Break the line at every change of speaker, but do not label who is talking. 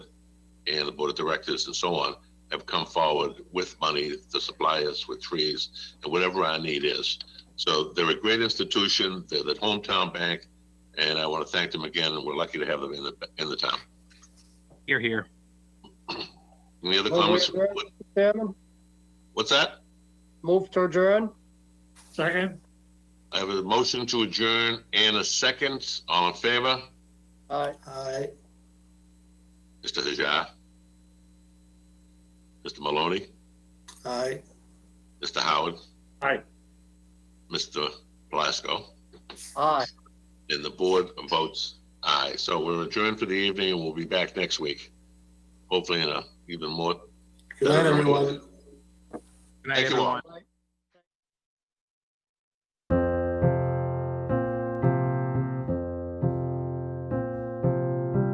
and the board of directors and so on have come forward with money to supply us with trees and whatever our need is. So they're a great institution. They're the hometown bank, and I want to thank them again. And we're lucky to have them in the in the town.
Here, here.
Any other
Well, we-
comments?
we're- Chairman,
What's that?
move to adjourn?
Second?
I have a motion to adjourn and a second. All in favor?
Aye.
Aye.
Mr. Hajar? Mr. Maloney?
Aye.
Mr. Howard?
Aye.
Mr. Plasko?
Aye.
And the board votes aye. So we're adjourned for the evening and we'll be back next week. Hopefully in a even more
Good night, everyone.
Good night,
Thank you all.
everyone.
Aye.